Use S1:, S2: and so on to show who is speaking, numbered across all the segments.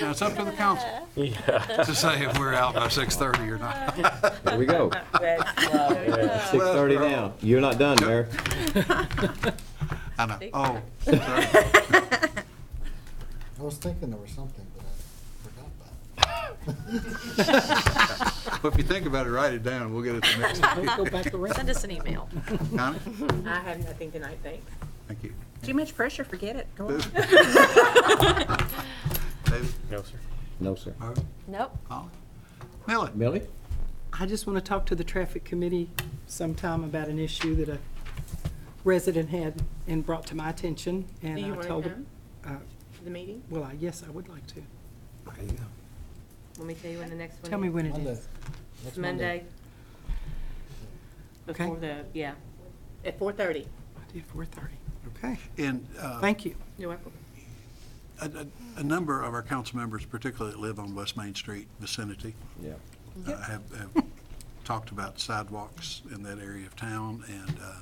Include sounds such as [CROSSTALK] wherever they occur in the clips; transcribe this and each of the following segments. S1: Now, it's up to the council
S2: [LAUGHS]
S1: [LAUGHS]
S3: Yeah,
S1: to say if we're out by 6:30 or not.
S4: There we go.
S2: That's lovely.
S4: Six thirty now. You're not done, Mayor.
S1: I know. Oh, sorry.
S5: I was thinking there was something, but I forgot about it.
S6: [LAUGHS]
S1: [LAUGHS] Well, if you think about it, write it down. We'll get it the next time.
S6: [LAUGHS] Go back around.
S2: Send us an email.
S1: Connie?
S2: [LAUGHS] I have nothing tonight,
S1: [LAUGHS]
S2: thanks.
S1: Thank you.
S6: Too much pressure, forget it. Go on.
S1: David?
S3: no, sir.
S4: No, sir.
S1: Marvin?
S2: Nope.
S1: Molly? Millie?
S4: Millie?
S6: I just want to talk to the traffic committee sometime about an issue that a resident had and brought to my attention, and
S2: Do you
S6: I
S2: want to
S6: told
S2: come
S6: them. uh,
S2: to the meeting?
S6: Well, I, yes, I would like to.
S1: There you go.
S2: Let me tell you when the next one is.
S6: Tell me when it
S5: Monday.
S6: is.
S5: Next
S2: Monday.
S6: Okay.
S2: Before the, yeah, at four thirty.
S6: Four thirty.
S1: Okay. And uh,
S6: Thank you.
S2: You're welcome.
S1: a, a- a number of our council members, particularly that live on West Main Street vicinity,
S4: Yeah.
S1: uh, have, have talked about sidewalks in that area of town, and uh,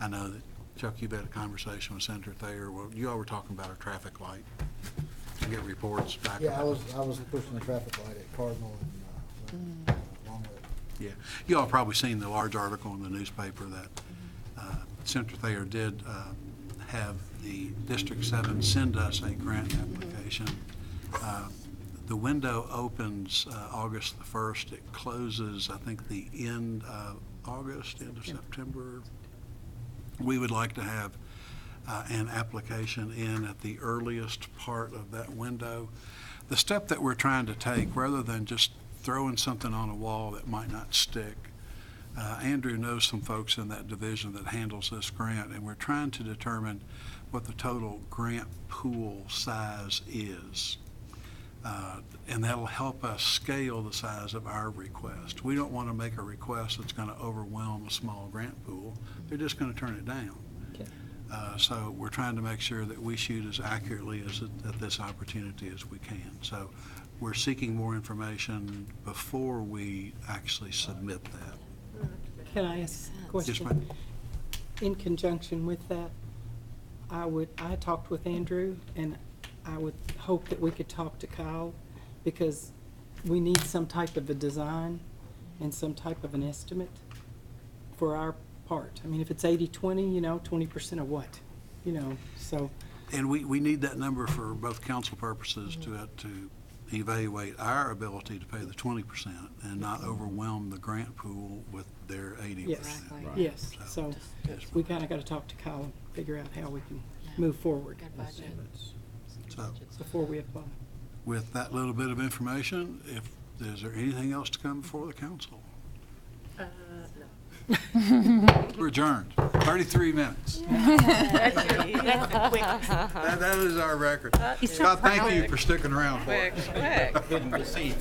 S1: I know that, Chuck, you've had a conversation with Senator Thayer, well, you all were talking about a traffic light. You get reports back.
S5: Yeah, I
S1: about-
S5: was, I was pushing the traffic light at Cardinal and, uh, along with
S1: Yeah, you all probably seen the large article in the newspaper that uh, Senator Thayer did uh, have the District 7 send us a grant application. Uh, The window opens uh, August the 1st, it closes, I think, the end of August, end of September. We would like to have uh, an application in at the earliest part of that window. The step that we're trying to take, rather than just throwing something on a wall that might not stick, uh, Andrew knows some folks in that division that handles this grant, and we're trying to determine what the total grant pool size is. Uh, And that'll help us scale the size of our request. We don't want to make a request that's going to overwhelm a small grant pool. They're just going to turn it down. Uh, So we're trying to make sure that we shoot as accurately as, it- at this opportunity as we can. So we're seeking more information before we actually submit that.
S6: Can I ask a question?
S1: Yes, ma'am.
S6: In conjunction with that, I would, I talked with Andrew, and I would hope that we could talk to Kyle, because we need some type of a design and some type of an estimate for our part. I mean, if it's eighty-twenty, you know, twenty percent of what, you know, so,
S1: And we, we need that number for both council purposes to, uh, to evaluate our ability to pay the twenty percent and not overwhelm the grant pool with their eighty
S6: yes,
S1: percent.
S6: yes.
S1: So-
S6: So we kinda gotta talk to Kyle and figure out how we can move forward
S1: So
S6: before we apply.
S1: with that little bit of information, if, is there anything else to come before the council? We're adjourned, thirty-three minutes. That, that is our record. Scott, thank you for sticking around for us.